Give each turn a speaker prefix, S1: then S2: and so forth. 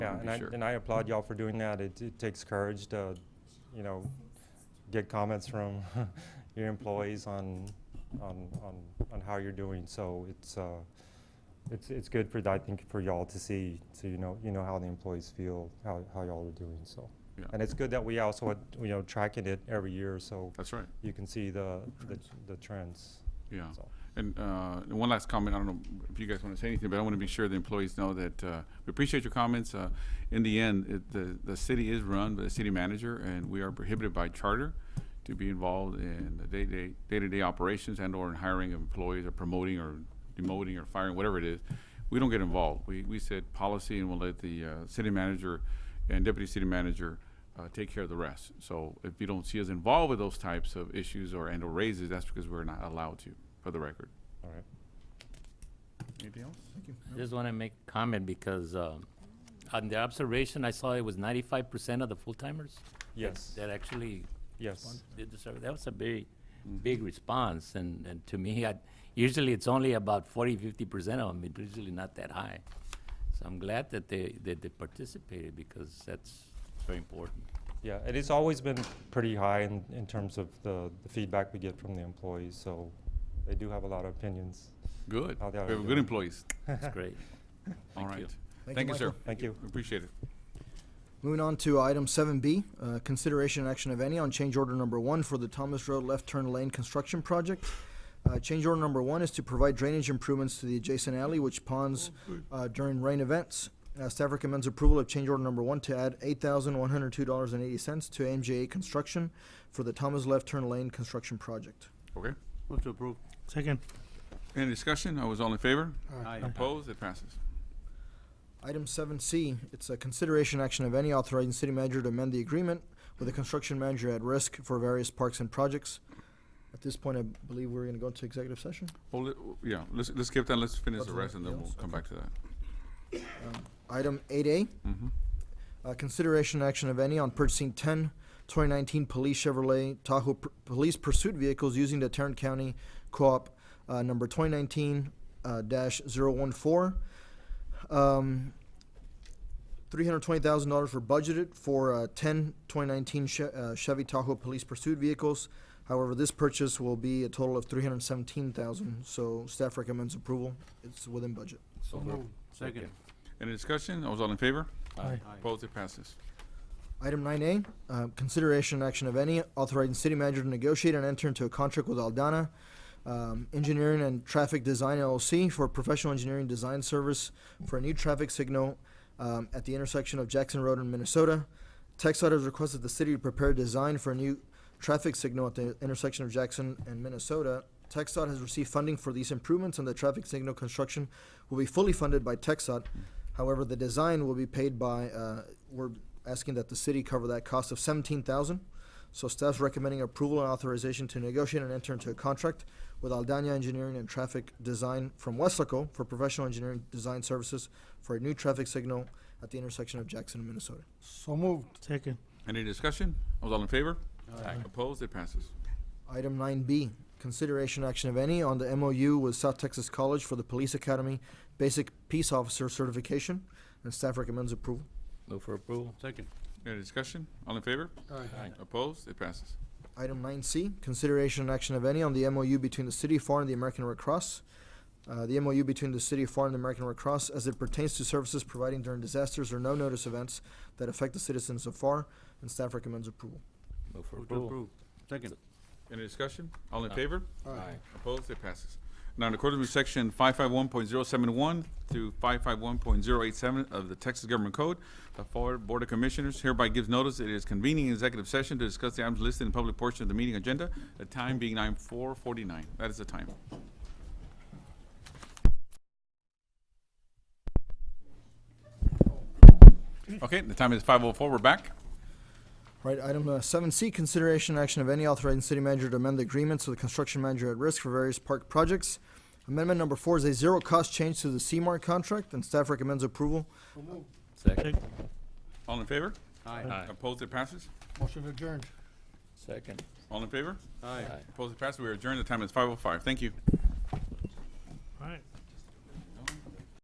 S1: Yeah,
S2: be
S1: and I,
S2: sure.
S1: and I applaud y'all for doing that. It, it takes courage to, you know, get comments from your employees on, on, on, on how you're doing. So it's, uh, it's, it's good for, I think, for y'all to see, so you know, you know how the employees feel, how, how y'all are doing, so.
S2: Yeah.
S1: And it's good that we also, had, you know, tracking it every year, so
S2: That's right,
S1: you can see the, the, the trends,
S2: yeah.
S1: so.
S2: And uh, and one last comment, I don't know if you guys want to say anything, but I want to be sure the employees know that uh, we appreciate your comments. Uh, In the end, it- the, the city is run by the city manager, and we are prohibited by charter to be involved in the day-to-day, day-to-day operations and/or in hiring of employees or promoting or demoting or firing, whatever it is. We don't get involved. We, we set policy and we'll let the uh, city manager and deputy city manager uh, take care of the rest. So if you don't see us involved with those types of issues or and/or raises, that's because we're not allowed to, for the record.
S1: All right.
S2: Anything else?
S3: I just want to make a comment because um, on the observation, I saw it was ninety-five percent of the full-timers
S1: Yes,
S3: that actually
S1: yes,
S3: did the survey. That was a very big response, and, and to me, I, usually it's only about 40, 50 percent of them, it's usually not that high. So I'm glad that they, that they participated because that's very important.
S1: yeah. And it's always been pretty high in, in terms of the, the feedback we get from the employees, so they do have a lot of opinions.
S2: Good.
S1: Oh,
S2: We
S1: there
S2: have
S1: we
S2: good
S1: go.
S2: employees.
S3: It's great.
S2: All
S3: Thank you.
S2: right. Thank you, sir.
S4: Michael.
S1: Thank you.
S2: Appreciate it.
S4: Moving on to item seven B, uh, consideration and action of any on change order number one for the Thomas Road Left Turn Lane Construction Project. Uh, change order number one is to provide drainage improvements to the adjacent alley which ponds,
S2: Oh,
S4: uh, during rain events. Uh, staff recommends approval of change order number one to add eight thousand one hundred two dollars and eighty cents to MJA Construction for the Thomas Left Turn Lane Construction Project.
S2: Okay.
S5: Move to approve.
S6: Second.
S2: Any discussion? I was all in favor? Opposed? It passes.
S4: Item seven C, it's a consideration action of any authorizing city manager to amend the agreement with the construction manager at risk for various parks and projects. At this point, I believe we're gonna go into executive session.
S2: Well, let- yeah, let's, let's skip that. Let's finish the
S4: Other
S2: rest and then we'll
S4: else?
S2: come back to that.
S4: Um, Item eight A,
S2: Mhm.
S4: uh, consideration action of any on purchasing 10 2019 police Chevrolet Tahoe pr- police pursuit vehicles using the Tarrant County Co-op, uh, number twenty nineteen, uh, dash zero one four. Um, three hundred twenty thousand dollars were budgeted for, uh, ten twenty nineteen Che- uh, Chevy Tahoe police pursuit vehicles. However, this purchase will be a total of three hundred seventeen thousand, so staff recommends approval. It's within budget.
S5: So moved. Second.
S2: Any discussion? I was all in favor?
S6: Aye.
S2: Opposed? It passes.
S4: Item nine A, uh, consideration and action of any authorizing city manager to negotiate and enter into a contract with Aldana um, Engineering and Traffic Design LLC for professional engineering design service for a new traffic signal um, at the intersection of Jackson Road and Minnesota. TechSite has requested the city to prepare a design for a new traffic signal at the intersection of Jackson and Minnesota. TechSite has received funding for these improvements, and the traffic signal construction will be fully funded by TechSite. However, the design will be paid by, uh, we're asking that the city cover that cost of seventeen thousand. So staff's recommending approval and authorization to negotiate and enter into a contract with Aldana Engineering and Traffic Design from Westlaco for professional engineering design services for a new traffic signal at the intersection of Jackson and Minnesota.
S6: So moved. Second.
S2: Any discussion? I was all in favor? Opposed? It passes.
S4: Item nine B, consideration action of any on the MOU with South Texas College for the Police Academy Basic Peace Officer Certification, and staff recommends approval.
S3: Move for approval.
S5: Second.
S2: Any discussion? All in favor?
S3: Aye.
S2: Opposed? It passes.
S4: Item nine C, consideration and action of any on the MOU between the City of FAR and the American Red Cross. Uh, the MOU between the City of FAR and the American Red Cross as it pertains to services providing during disasters or no-notice events that affect the citizens of FAR, and staff recommends approval.
S3: Move for
S5: Move to
S3: approval.
S5: approve. Second.
S2: Any discussion? All in
S3: No.
S2: favor?
S3: Aye.
S2: Opposed? It passes. Now, in accordance with section five five one point zero seven one through five five one point zero eight seven of the Texas Government Code, the Florida Board of Commissioners hereby gives notice it is convening an executive session to discuss the items listed in the public portion of the meeting agenda, the time being nine four forty-nine. That is the time. Okay, the time is five oh four. We're back.
S4: Right, item uh, seven C, consideration and action of any authorizing city manager to amend the agreements with the construction manager at risk for various park projects. Amendment number four is a zero-cost change to the CMAR contract, and staff recommends approval.
S3: Second.
S2: All in favor?
S5: Aye.
S2: Opposed? It passes.
S6: Motion adjourned.
S3: Second.
S2: All in favor?
S5: Aye.
S2: Opposed? It passes. We are adjourned. The time is five oh five. Thank you.
S6: All right.